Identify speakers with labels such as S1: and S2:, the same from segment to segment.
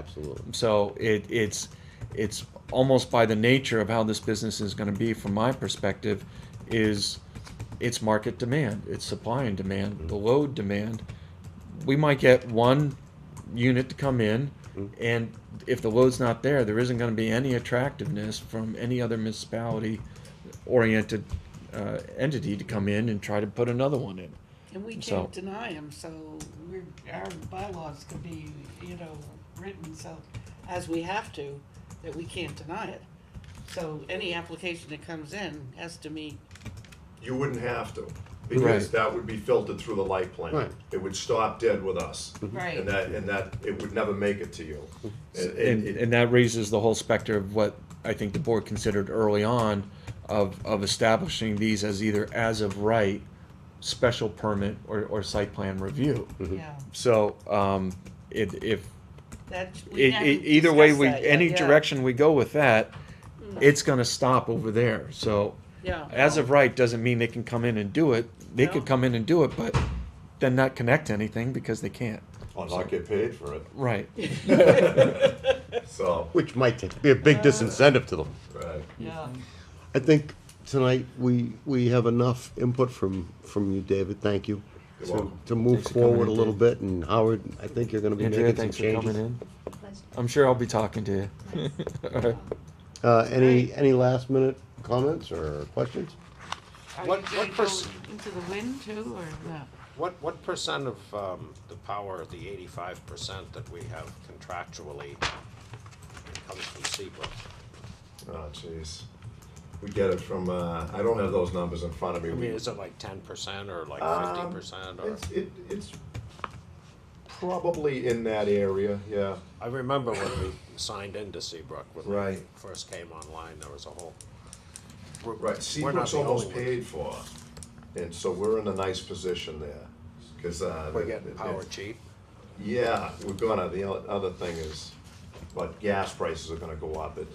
S1: Absolutely.
S2: So it, it's it's almost by the nature of how this business is going to be, from my perspective, is it's market demand, it's supply and demand, the load demand. We might get one unit to come in, and if the load's not there, there isn't going to be any attractiveness from any other municipality oriented uh, entity to come in and try to put another one in.
S3: And we
S2: So-
S3: can't deny them, so we're, our bylaws could be, you know, written so, as we have to, that we can't deny it. So any application that comes in has to meet,
S4: You wouldn't have to, because
S2: Right.
S4: that would be filtered through the light plan.
S1: Right.
S4: It would stop dead with us.
S5: Mm-hmm.
S3: Right.
S4: And that, and that, it would never make it to you. And-
S2: and,
S4: and it-
S2: and that raises the whole specter of what I think the board considered early on of, of establishing these as either as of right, special permit, or, or site plan review.
S3: yeah,
S2: So, um, it, if,
S3: that, we
S2: it,
S3: haven't
S2: it- E-, either way,
S3: discussed
S2: we,
S3: that yet,
S2: any
S3: yeah. Hmm.
S2: direction we go with that, it's gonna stop over there, so.
S3: Yeah.
S2: As of right doesn't mean they can come in and do it, they
S3: No.
S2: could come in and do it, but then not connect to anything because they can't.
S4: I'll not get paid for it,
S2: Right,
S4: so,
S1: Which might t- be a big disincentive to them.
S4: right.
S3: Yeah,
S1: I think tonight we, we have enough input from, from you, David, thank you.
S4: You're
S1: To,
S4: welcome.
S1: to move
S2: Thanks for coming
S1: forward a
S2: in,
S1: little
S2: Dave.
S1: bit, and Howard, I think you're gonna be
S2: Andrea,
S1: making some
S2: thanks for coming
S1: changes.
S2: in,
S6: Pleasure.
S2: I'm sure I'll be talking to you. All right.
S1: Uh, any, any last minute comments or questions?
S3: are you
S5: What-
S3: gonna
S5: what
S3: go
S5: perc-
S3: into the wind too, or no?
S5: What, what percent of um, the power, the eighty-five percent that we have contractually comes from Seabrook?
S4: Oh, jeez. We get it from, uh, I don't have those numbers in front of me.
S5: I
S4: We-
S5: mean, is it like ten percent or like
S4: Um,
S5: fifty percent or?
S4: It's, it, it's probably in that area, yeah.
S5: I remember when we signed into Seabrook, when we
S4: Right.
S5: first came online, there was a whole.
S4: Right,
S5: We're not
S4: Seabrook's
S5: the only
S4: almost
S5: ones.
S4: paid for, and so we're in a nice position there, because, uh.
S5: We're
S4: it-
S5: getting
S4: it-
S5: power
S4: it-
S5: cheap.
S4: Yeah, we're gonna, the o- other thing is, but gas prices are gonna go up, it,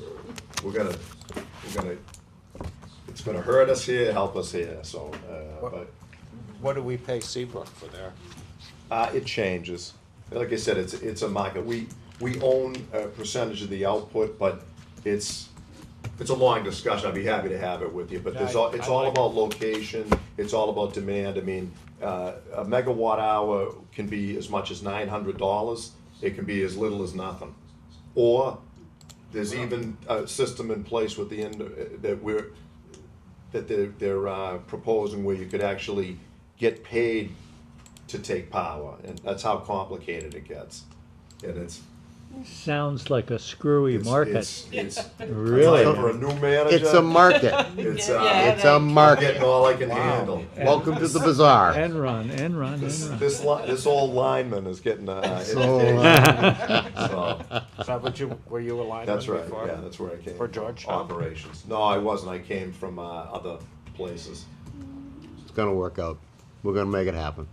S4: we're gonna, we're gonna, it's gonna hurt us here, help us here, so, uh, but,
S5: What do we pay Seabrook for there?
S4: uh, it changes. Like I said, it's, it's a market, we, we own a percentage of the output, but it's, it's a long discussion, I'd be happy to have it with you, but there's, all- it's
S5: Yeah, I- I
S4: all
S5: like-
S4: about location, it's all about demand, I mean, uh, a megawatt hour can be as much as nine hundred dollars, it can be as little as nothing. Or, there's even a system in place with the end, uh, that we're, that they're, they're uh, proposing where you could actually get paid to take power, and that's how complicated it gets. And it's,
S7: Sounds like a screwy
S4: it's,
S7: market.
S4: it's, it's
S1: Really?
S4: for a new manager.
S1: It's a market,
S4: It's,
S3: Yeah,
S4: uh,
S1: it's a
S4: getting
S1: market,
S4: all I can handle.
S1: welcome to the bazaar.
S7: Enron, Enron,
S4: This,
S7: Enron.
S4: this, li- this old lineman is getting, uh,
S1: So,
S4: so,
S1: uh,
S5: Is that what you, were you a lineman
S4: that's right,
S5: before?
S4: yeah, that's where I came.
S5: For
S4: from.
S5: Georgetown?
S4: Operations. No, I wasn't, I came from, uh, other places.
S1: it's gonna work out, we're gonna make it happen.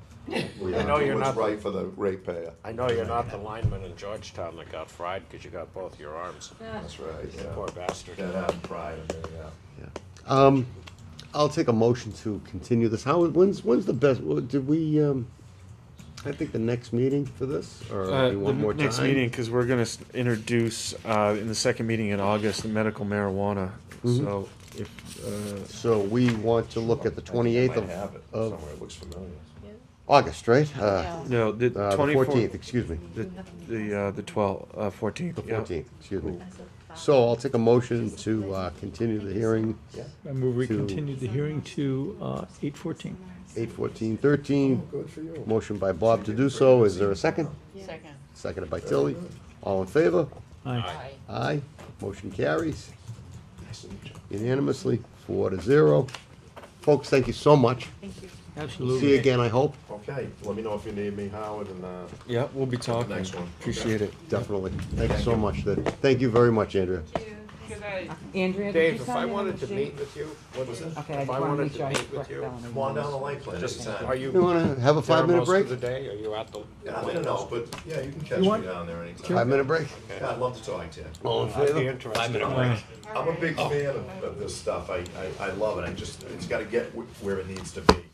S4: We
S5: I
S4: uh,
S5: know
S4: do
S5: you're
S4: what's
S5: not-
S4: right for the ratepayer,
S5: I know you're not the lineman in Georgetown that got fried because you got both your arms.
S4: that's right, yeah.
S5: Poor bastard.
S4: That had pride in there, yeah.
S1: Um, I'll take a motion to continue this. How, when's, when's the best, well, did we, um, I think the next meeting for this,
S2: Uh,
S1: or
S2: the
S1: do one more time?
S2: next meeting, because we're going to introduce uh, in the second meeting in August the medical marijuana.
S1: Mm-hmm.
S2: So if uh,
S1: So we want to look at the twenty-eighth
S4: I might have
S1: of,
S4: it
S1: of
S4: somewhere, it looks familiar.
S1: August, right? Uh,
S2: no, the
S1: uh, the
S2: twenty
S1: fourteenth,
S2: fourth,
S1: excuse me,
S2: the the uh, the twelfth, uh, fourteenth,
S1: the fourteenth, excuse me.
S6: As of five.
S1: So I'll take a motion to, uh, continue the hearing,
S7: I move we
S1: To-
S7: continue the hearing to, uh, eight fourteen.
S1: eight fourteen thirteen.
S4: Good for you.
S1: Motion by Bob to do so. Is there a second?
S3: Second.
S1: Seconded by Tilly. All in favor?
S7: Aye.
S3: Aye.
S1: Aye. Motion carries
S4: Nice to meet you.
S1: unanimously, four to zero. Folks, thank you so much.
S6: Thank you.
S7: Absolutely.
S1: See you again, I hope,
S4: Okay, let me know if you need me, Howard, and, uh,
S2: Yeah, we'll be talking.
S4: Next one.
S2: Appreciate it.
S1: definitely. Thank you so much. Thank you very much, Andrea.
S3: Good night.
S8: Andrea, did
S5: Dave,
S8: you
S5: if I
S8: sign in on
S5: wanted
S8: the
S5: to
S8: sheet?
S5: meet with you, what was it?
S8: Okay, I
S5: If
S8: just
S5: I
S8: wanna
S5: wanted
S8: make sure
S5: to
S8: I
S5: meet with
S8: correct
S5: you,
S8: that on the.
S4: come on down the light plan
S5: just,
S4: anytime.
S5: are you?
S1: You wanna have a
S5: there
S1: five-minute
S5: most
S1: break?
S5: of the day? Are you at the?
S4: Yeah, I don't know, but, yeah, you can catch
S7: You want-
S4: me down there anytime.
S1: Five-minute break?
S4: Yeah, I'd love to talk to you.
S1: All in
S5: I'd be
S1: favor?
S5: interested.
S4: Oh. I'm a big fan of, of this stuff, I, I, I love it, I just, it's gotta get wh- where it needs to be.